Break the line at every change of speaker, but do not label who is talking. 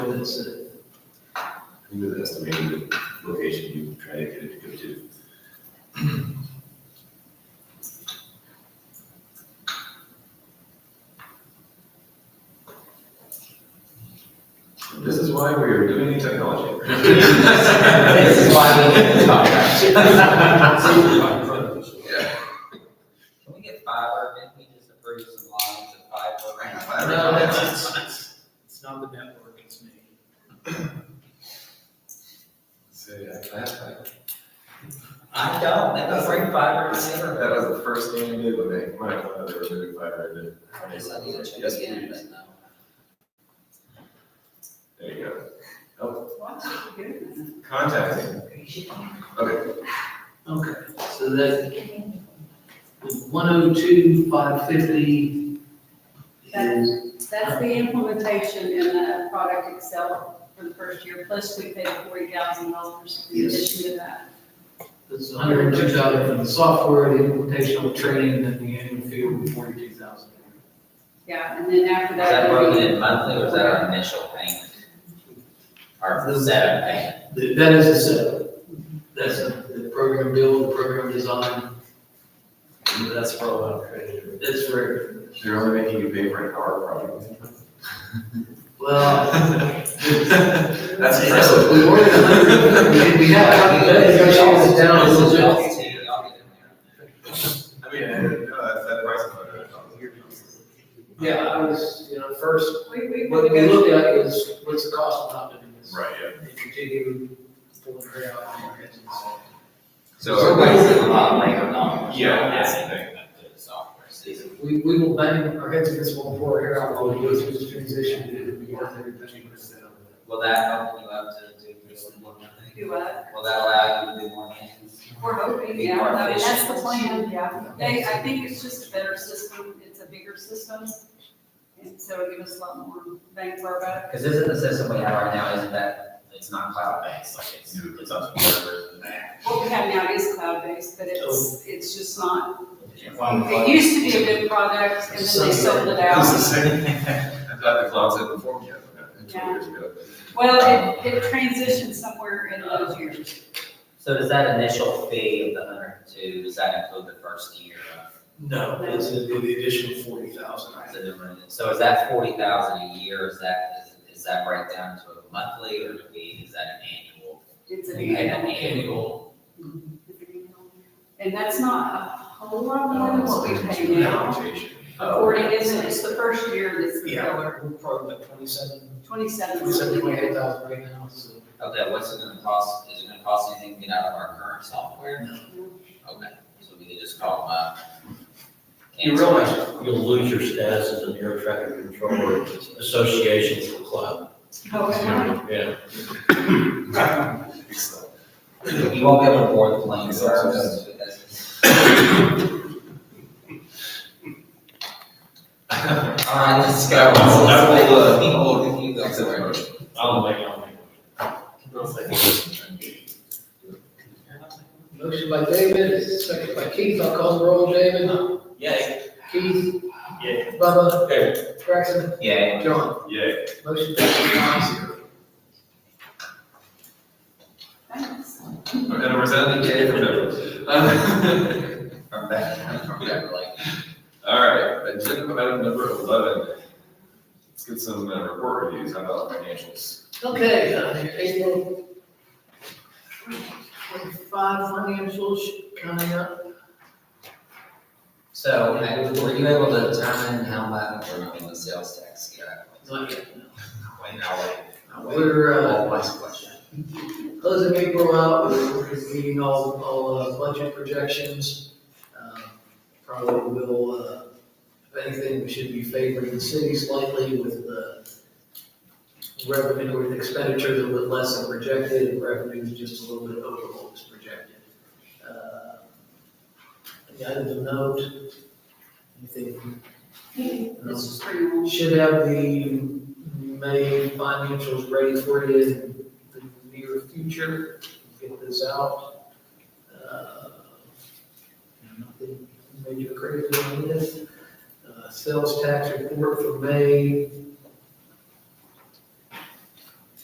that's it.
You know, that's the main location you try to get it to go to. This is why we are doing new technology.
This is why we need to talk
Yeah.
Can we get five, or didn't we just approve some lines of five? or-
No, that's, it's, it's not the network, it's me.
So, yeah, that's fine.
I don't, that was like five or seven.
That was the first thing I did when they, when I found out they were doing fiber, I did.
I need to check
Yes,
again,
please.
but no.
There you go. Contacting, okay,
Okay, so that, one oh two, five fifty is,
That's the implementation in the product itself for the first year, plus we paid forty thousand dollars in
Yes.
addition to that.
that's hundred and two thousand for the software, the implementation, training, and then the annual fee will be forty-two thousand.
Yeah, and then after
Was that
that.
broken in monthly, or was that our initial payment? Our setup payment?
That, that is a setup. That's a, the program build, program design. That's for a lot of credit. That's for,
they're only making you pay for an hour project.
well,
That's
impressive. We ordered a hundred, we- we had a hundred days, we shut it down, it was all-
I'll get in there.
I mean, I didn't know that's that price point. I don't know.
Yeah, I was, you know, first,
We, we.
what we looked at is, what's the cost of not doing this?
Right, yeah.
And continue pulling her out on our heads and stuff.
So
So,
we're wasting a lot of labor, no?
Yeah, that's the
Adding up to the software, see?
We, we will bang our heads against one floor here, I'll go through this transition, and it'll be worth everything.
Will that help you out to do just one more thing?
Do what?
Will that allow you to do more things?
We're hoping,
Be
yeah,
more
I mean, that's the
efficient.
plan, yeah. They, I think it's just a better system, it's a bigger system, and so it'll give us a lot more bang for our buck.
Because isn't the system we have right now, isn't that, it's not cloud based, like it's, it's up to servers and that.
What we have now is cloud-based, but it's, it's just not,
One
it used to be a good product, and then they sold it
I was
out.
the same. I thought the clouds had performed yet, okay, two years ago.
Well, it, it transitioned somewhere in those years.
So does that initial fee of the hundred and two, does that include the first year of,
No, it's gonna be the additional forty thousand.
the different- so is that forty thousand a year, is that, is, is that break down to a monthly, or do we, is that an annual?
It's a
An annual.
And that's not a whole lot more
Uh,
than what we pay now. Forty isn't, it's the first year that's the
Yeah,
killer,
we're probably about twenty-seven,
twenty-seven. is
twenty-seven,
the
twenty-eight
year.
thousand right now, so.
Okay, what's it gonna cost, is it gonna cost anything to get out of our current software? Okay, so we can just call them up.
You realize you'll lose your status as an air traffic controller association for club.
Oh,
Yeah.
Excellent.
You won't be able to board the plane, sir, because- All right, let's go.
That will- that will, uh,
People, if you go
Accept my
somewhere.
motion.
I'll make, I'll make.
Motion by David, second by Keith, I'll call the roll, David.
Yay.
Keith.
Yeah.
Bubba.
Okay,
Braxton.
Yay.
John.
Yay.
Motion passes five zero.
Thanks.
And we're sending Jay from there. Uh,
From back, from back, like,
All right, agenda item number eleven. Let's get some uh, report reviews, how about financials?
Okay, uh, April twenty-five financials coming up.
so, were you able to determine how much we're going the sales tax? Yeah.
Not yet,
Wait, now, wait.
no. We're, uh,
All my question.
closing April out, we're we're meeting all, all uh, budget projections. Um, Probably will, uh, if anything, we should be favoring the city slightly with the revenue or the expenditure a little bit less than projected, and revenue is just a little bit over what was projected. Uh, Any items of note? Anything
This is pretty long.
should have the May financials ready for you in the near future, get this out. Uh, Nothing major crazy on this. Uh, Sales tax report for May,